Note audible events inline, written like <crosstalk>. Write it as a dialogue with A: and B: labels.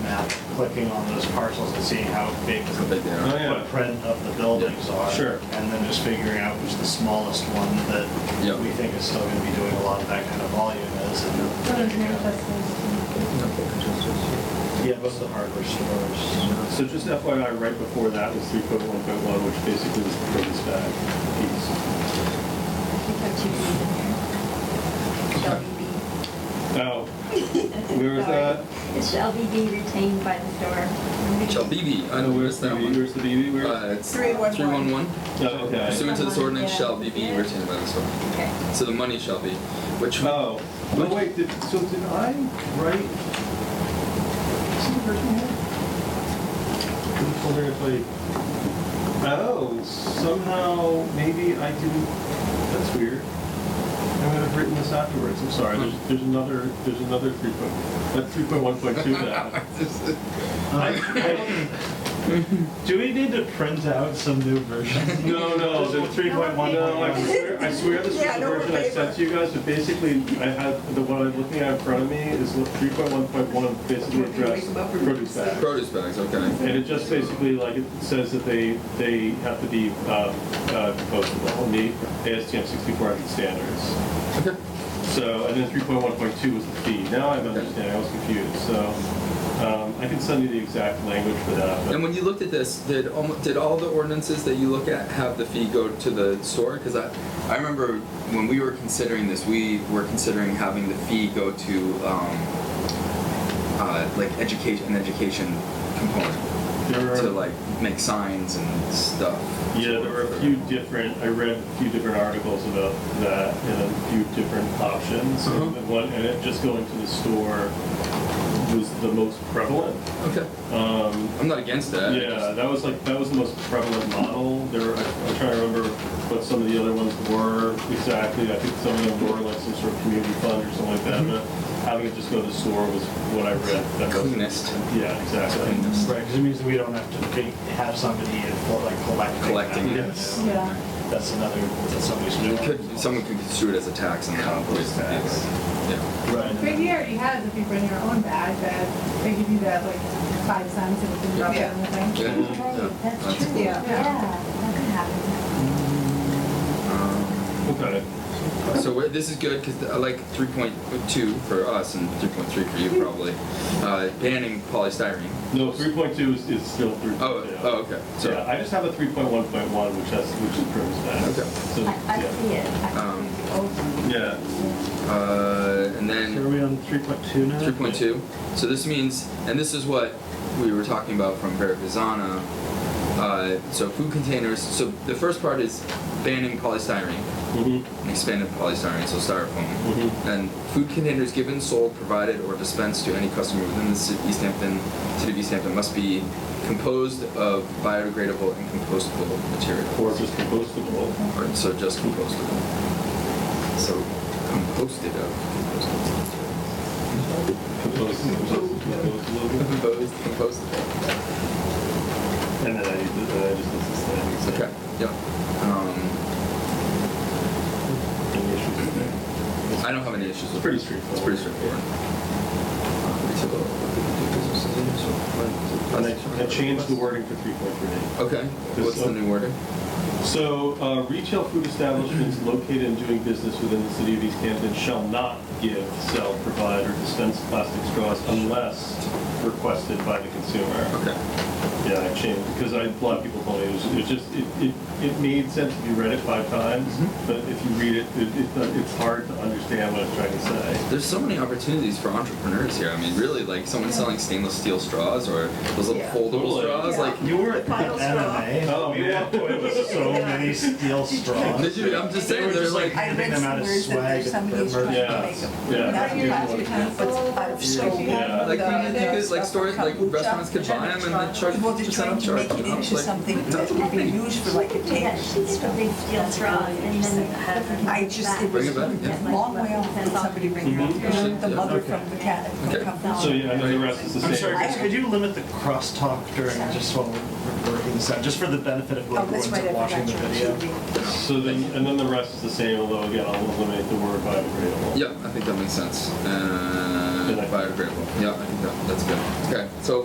A: clicking on those parcels and seeing how big
B: How
A: the
B: big they
C: Oh,
B: are.
C: yeah.
A: footprint of the buildings are.
C: Sure.
A: And then just figuring out which the smallest one
B: Yep.
A: that we think is still gonna be doing a lot of that kind of volume is. and-
D: What is manifest?
A: Yeah, most of the hardware stores.
C: So just FYI, right before that was 3.1.1, which basically was the proposed bag piece.
D: I think I should be in here.
C: Oh,
D: LBB.
C: where was
D: Sorry.
C: that?
D: It's LBB retained by the store.
B: Shall BB, I know where's
C: the
B: that
C: BB?
B: one.
C: Where's the BB? Where?
B: Uh, it's three one
E: 311.
B: one.
C: oh, okay.
B: Pursuant to this ordinance, shall BB
D: Yeah.
B: retained by this one.
D: Okay.
B: So the money shall be, which
C: Oh, no, wait. Did, so did I write? Is the version here? I'm just wondering if I. Oh, somehow maybe I didn't. That's weird. I would have written this afterwards. I'm sorry. There's, there's another. There's another three point. That three point one
B: <laughs>
C: point two. That.
A: Do we need to print out some new version?
C: No, no,
A: Just
C: the-
A: three point one.
C: No, uh, I swear, I swear this was
E: Yeah,
C: the
E: no, we're
C: version I sent to you guys, but basically, I had, the one I'm looking at in front of me is three point one point one, basically addressed produce bags.
B: produce bags, okay.
C: And it just basically, like, it says that they, they have to be, uh, uh, compostable, and meet ASTM sixty-four hundred standards.
B: Okay.
C: So, and then three point one point two was the fee, now I'm understanding, I was confused, so, um, I can send you the exact language for that, but.
B: And when you looked at this, did almost, did all the ordinances that you look at have the fee go to the store? Because I, I remember when we were considering this, we were considering having the fee go to um, uh, like education, an education component
C: There are-
B: to like make signs and stuff.
C: Yeah, there were a few different, I read a few different articles about that and a few different options.
B: Uh-huh.
C: And one, and it just going to the store was the most prevalent.
B: Okay,
C: Um,
B: I'm not against that. I
C: yeah,
B: just-
C: that was like, that was the most prevalent model. There were, I- I'm trying to remember what some of the other ones were exactly. I think some of them were like some sort of community fund or something like that, but having it just go to the store was what I read. That was,
B: Cleanest.
C: yeah, exactly.
B: Cleanest.
A: Right, because it means that we don't have to be- have somebody like collecting.
B: Collecting it.
A: Yes.
D: Yeah.
A: That's another, that's somebody's new.
B: You could, someone could construe it as a tax and that would be
A: Compost tax.
B: Yeah.
A: Right.
F: Maybe already has, if you bring your own bag, that they give you that like five cents and you can drop it in the thing.
B: Yeah.
D: Right, that's true.
E: Yeah.
D: Yeah, that could happen.
B: Um,
C: Okay.
B: So we're, this is good because I like 3.2 for us and 3.3 for you probably. Uh, banning polystyrene.
C: No, three point two is, is still three.
B: Oh, oh, okay. So
C: Yeah, I just have a three point one point one, which has, which improves that.
B: Okay.
C: So,
D: I, I
C: yeah.
D: see it. I
B: Um,
D: see the old one.
C: Yeah,
B: uh, and
A: So are
B: then
A: we on three point two now?
B: 3.2. So this means, and this is what we were talking about from Verifizana. Uh, so food containers. So the first part is banning polystyrene.
C: mhm,
B: and expanded polystyrene, so styrofoam,
C: Mhm.
B: and food containers given, sold, provided, or dispensed to any customer within the ci- East Hampton, city of East Hampton must be composed of biodegradable and compostable material.
C: or just compostable.
B: Or, so just compostable. So composted of.
C: Compostable, compostable.
B: Composed, compostable.
C: And then I, then I just list this thing. so-
B: Mm-hmm. Okay. Yeah. Um,
C: Any issues with that?
B: I don't have any issues with
C: It's pretty
B: it.
C: straightforward.
B: It's pretty straightforward. Uh, we took a-
C: And I, I changed the wording for three point three.
B: Okay. What's the new order?
C: So, uh, retail food establishments located and doing business within the city of East Hampton shall not give, sell, provide, or dispense plastic straws unless requested by the consumer.
B: Okay.
C: Yeah, I changed, because I, a lot of people told me, it was, it was just, it, it, it made sense if you read it five times, but if you read it, it, it, it's hard to understand what it's trying to say.
B: There's so many opportunities for entrepreneurs here. I mean, really, like someone selling stainless steel straws or those little
E: Yeah.
B: foldable
C: Totally.
B: straws.
E: Yeah.
B: Like,
A: You were at the
E: Pile straw.
A: MMA.
C: Oh,
A: We
C: yeah.
A: walked away with so many steel straws.
B: Did you- I'm just
A: They
B: saying,
A: were
B: they're
A: just like
B: like-
E: I
A: handing
E: read
A: them out as
E: some words that
A: swag
E: there's
A: at
E: somebody
A: the
E: who's
A: merch.
E: trying
C: Yeah.
E: to make them.
C: Yeah.
E: Not
C: Yeah.
E: plastic utensils, out of
F: Yeah.
E: soap.
C: Yeah.
B: like
E: uh,
B: when you think is like stores, like
E: kombucha.
B: restaurants could buy them and then charge
E: Well, they're
B: percent
E: trying
B: off
E: to
B: charge.
E: make
B: And
E: it
B: I was
E: into
B: like,
E: something
B: that's
E: that would be
B: great.
E: used for like a
D: Yeah,
E: table.
D: she did a big steel straw and then had her.
E: I just, it
B: Bring
E: was
B: it
E: a
B: back, yeah.
E: long way off when somebody bring their own,
B: Mhm.
E: the
B: Yeah.
E: mother
A: Okay.
E: from the cat.
B: Okay.
E: from kombucha.
C: So, yeah, and then the rest is the same.
A: I'm sorry, guys, could you limit the crosstalk during just while we're working this out, just for the benefit of
E: Oh,
A: everyone's
E: that's right, I
A: watching
E: forgot
A: the
E: you were
A: video?
E: TV.
C: So then, and then the rest is the same, although again, I'll eliminate the word biodegradable.
B: Yeah, I think that makes sense. Uh,
C: Good idea.
B: biodegradable. Yeah, I think that, that's good. Okay, so